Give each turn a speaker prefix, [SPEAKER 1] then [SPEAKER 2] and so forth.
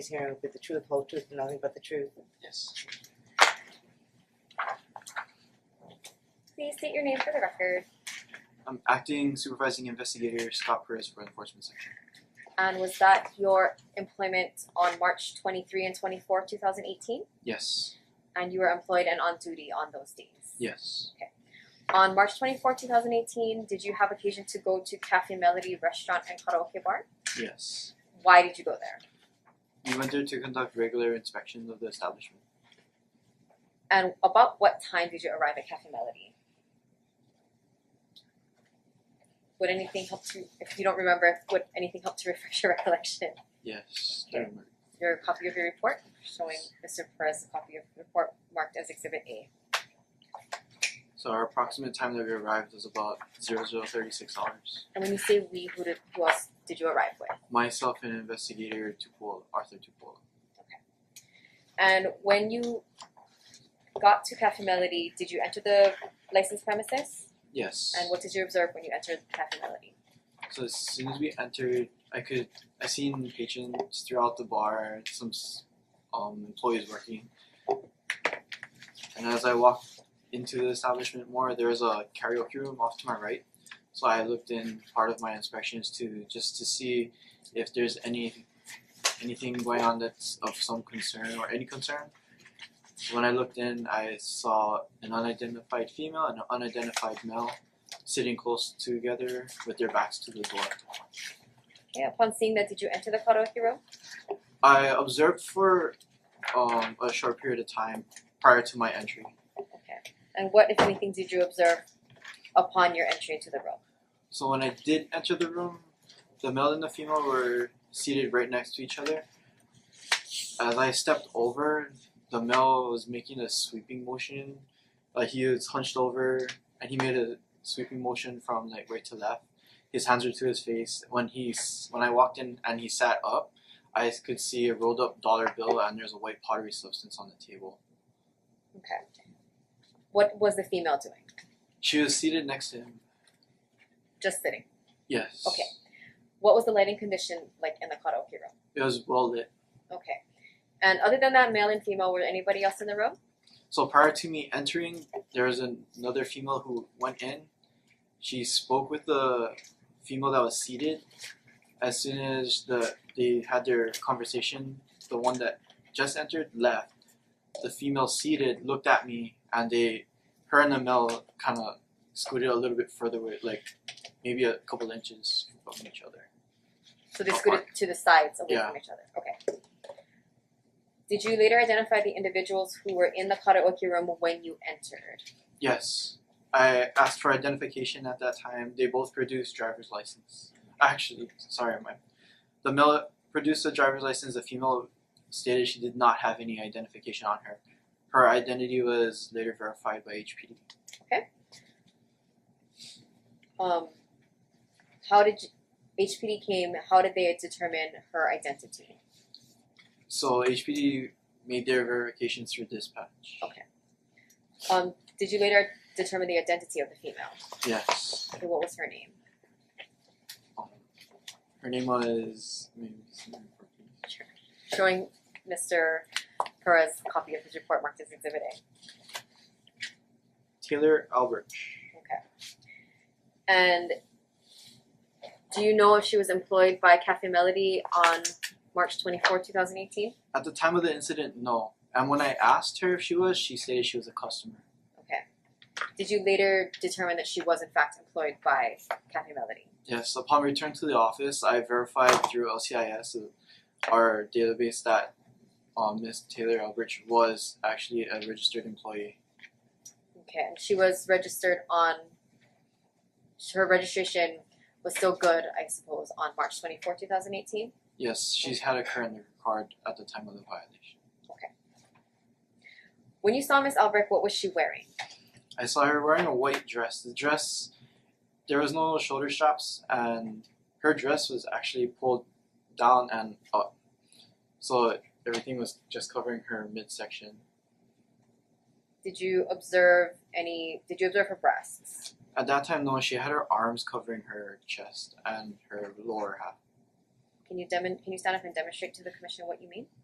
[SPEAKER 1] This hearing will be the truth, whole truth, and nothing but the truth.
[SPEAKER 2] Yes.
[SPEAKER 3] Please state your name for the record.
[SPEAKER 2] I'm Um, acting supervising investigator Scott Perez for enforcement section.
[SPEAKER 3] And was that your employment on March 23 and 24, 2018?
[SPEAKER 2] Yes.
[SPEAKER 3] And you were employed and on duty on those days.
[SPEAKER 2] Yes.
[SPEAKER 3] On March 24, 2018, did you have occasion to go to Cafe Melody restaurant and karaoke bar?
[SPEAKER 2] Yes.
[SPEAKER 3] Why did you go there?
[SPEAKER 2] We went there to conduct regular inspections of the establishment.
[SPEAKER 3] And about what time did you arrive at Cafe Melody? Would anything help to, if you don't remember, would anything help to refresh your recollection?
[SPEAKER 2] Yes.
[SPEAKER 3] Okay. your copy of your report, showing Mr. Perez a copy of the report marked as exhibit A.
[SPEAKER 2] So our approximate time that we arrived was about zero zero thirty six hours.
[SPEAKER 3] And when you say we, who did, who else did you arrive with?
[SPEAKER 2] Myself and investigator Tupola, Arthur Tupola.
[SPEAKER 3] And when you got to Cafe Melody, did you enter the licensed premises?
[SPEAKER 2] Yes.
[SPEAKER 3] And what did you observe when you entered Cafe Melody?
[SPEAKER 2] So as soon as we entered, I could I seen patrons throughout the bar, some s- um, employees working, and as I walked into the establishment more, there was a karaoke room off to my right. So I looked in part of my inspections to just to see if there's any anything going on that's of some concern or any concern. When I looked in, I saw an unidentified female and an unidentified male sitting close together with their backs to the door.
[SPEAKER 3] Okay, upon seeing that, did you enter the karaoke room?
[SPEAKER 2] I observed for um, a short period of time prior to my entry.
[SPEAKER 3] Okay. And what, if anything, did you observe upon your entry into the room?
[SPEAKER 2] So when I did enter the room, the male and the female were seated right next to each other. As I stepped over, the male was making a sweeping motion. Like he was hunched over and he made a sweeping motion from like right to left. His hands were to his face. When he s- when I walked in and he sat up, I could see a rolled up dollar bill and there's a white pottery substance on the table.
[SPEAKER 3] Okay. What was the female doing?
[SPEAKER 2] She was seated next to him.
[SPEAKER 3] Just sitting.
[SPEAKER 2] Yes.
[SPEAKER 3] Okay. What was the lighting condition like in the karaoke room?
[SPEAKER 2] It was well lit.
[SPEAKER 3] Okay. And other than that, male and female, were anybody else in the room?
[SPEAKER 2] So prior to me entering, there was an- another female who went in. She spoke with the female that was seated. As soon as the they had their conversation, the one that just entered left. The female seated looked at me, and they, her and the male, kind of scooted a little bit further away, like maybe a couple inches from each other.
[SPEAKER 3] So they
[SPEAKER 2] Oh,
[SPEAKER 3] scooted to the sides away
[SPEAKER 2] Yeah.
[SPEAKER 3] from each other. Okay. Did you later identify the individuals who were in the karaoke room when you entered?
[SPEAKER 2] Yes. I asked for identification at that time. They both produced driver's license. Actually, sorry, my the male produced a driver's license. The female stated she did not have any identification on her. Her identity was later verified by HPD.
[SPEAKER 3] Um, how did you, HPD came? How did they determine her identity?
[SPEAKER 2] So HPD made their verification through dispatch.
[SPEAKER 3] Okay. Um, did you later determine the identity of the female?
[SPEAKER 2] Yes.
[SPEAKER 3] Okay, what was her name?
[SPEAKER 2] Um, her name was. maybe it's not important.
[SPEAKER 3] Showing Mr. Perez a copy of his report marked as Exhibit A.
[SPEAKER 2] Taylor Albert.
[SPEAKER 3] Okay. And do you know if she was employed by Cafe Melody on March 24, 2018?
[SPEAKER 2] At the time of the incident, no. And when I asked her if she was, she stated she was a customer.
[SPEAKER 3] Okay. Did you later determine that she was in fact employed by Cafe Melody?
[SPEAKER 2] Yes, upon return to the office, I verified through LCIS, uh, our database, that um, Ms. Taylor Elbridge was actually a registered employee.
[SPEAKER 3] Okay, and she was registered on her registration was still good, I suppose, on March 24, 2018.
[SPEAKER 2] Yes, she's had a current card at the time of the violation.
[SPEAKER 3] When you saw Miss Albrecht, what was she wearing?
[SPEAKER 2] I saw her wearing a white dress. The dress, there was no shoulder straps, and her dress was actually pulled down and up. So everything was just covering her midsection.
[SPEAKER 3] Did you observe any did you observe her breasts?
[SPEAKER 2] At that time, no, she had her arms covering her chest and her lower half.
[SPEAKER 3] Can you demon, can you stand up and demonstrate to the commission what you mean?